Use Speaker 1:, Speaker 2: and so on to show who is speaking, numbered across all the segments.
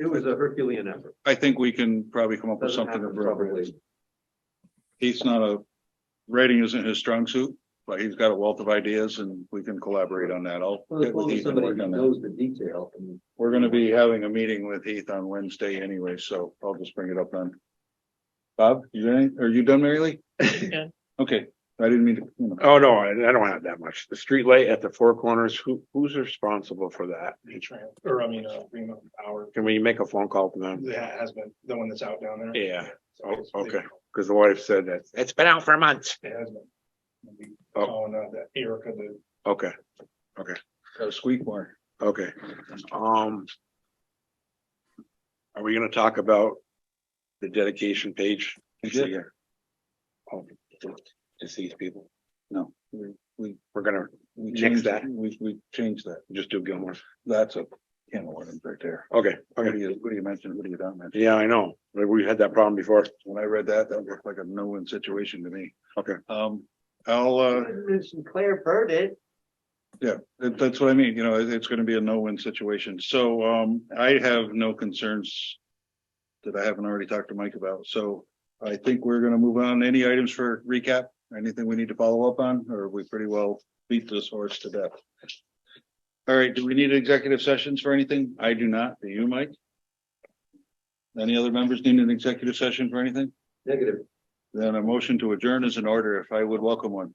Speaker 1: it was a Herculean effort.
Speaker 2: I think we can probably come up with
Speaker 1: Doesn't
Speaker 2: something
Speaker 1: happen
Speaker 2: appropriate.
Speaker 1: probably.
Speaker 2: He's not a, rating isn't his strong suit, but he's got a wealth of ideas and we can collaborate on that. I'll.
Speaker 1: Well, as
Speaker 2: get with
Speaker 1: long as
Speaker 2: Heath and
Speaker 1: somebody
Speaker 2: work on that.
Speaker 1: knows the detail. I mean,
Speaker 2: We're gonna be having a meeting with Heath on Wednesday anyway, so I'll just bring it up then. Bob, you, got any- are you done, Mary Lee?
Speaker 3: Yeah.
Speaker 2: Okay, I didn't mean to. you know.
Speaker 4: Oh, no, I, I don't have that much. The street light at the four corners, who, who's responsible for that?
Speaker 5: Tran- or I mean, uh, remote power,
Speaker 4: Can we make a phone call to them?
Speaker 5: that has been, the one that's out down there.
Speaker 4: Yeah,
Speaker 5: So it's-
Speaker 4: Oh, okay. because the wife said that, it's been out for months.
Speaker 5: It has been. We
Speaker 4: Oh.
Speaker 5: Calling uh, that Erica, the
Speaker 4: Okay,
Speaker 2: Got a squeak mark.
Speaker 4: okay, um. Are we gonna talk about the dedication page? next
Speaker 2: Yeah.
Speaker 4: year? Oh, to to these people,
Speaker 2: No, we, we,
Speaker 4: we're gonna
Speaker 2: we
Speaker 4: Nix
Speaker 2: changed
Speaker 4: that.
Speaker 2: that. We, we changed that.
Speaker 4: just do Gilmore.
Speaker 2: That's a can of worms right there.
Speaker 4: Okay,
Speaker 2: What do
Speaker 4: okay,
Speaker 2: you, what do you mention? What do you not mention?
Speaker 4: yeah, I know, we had that problem before.
Speaker 2: When I read that, that looked like a no-win situation to me.
Speaker 4: Okay.
Speaker 2: Um, I'll, uh,
Speaker 1: Claire heard it.
Speaker 2: That, that's what I mean, you know, it- it's gonna be a no-win situation, so, um, I have no concerns. That I haven't already talked to Mike about, so I think we're gonna move on, any items for recap, anything we need to follow up on, or we pretty well beat this horse to death. All right, do we need executive sessions for anything? I do not, do you, Mike? Any other members need an executive session for anything?
Speaker 1: Negative.
Speaker 2: Then a motion to adjourn is in order, if I would welcome one.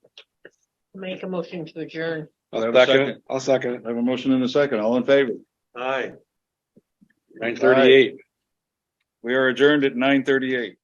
Speaker 3: Make a motion to adjourn.
Speaker 2: I'll second it.
Speaker 4: I'll second it.
Speaker 2: I have a motion and a second, all in favor?
Speaker 1: Aye.
Speaker 4: Nine thirty-eight.
Speaker 2: We are adjourned at nine thirty-eight.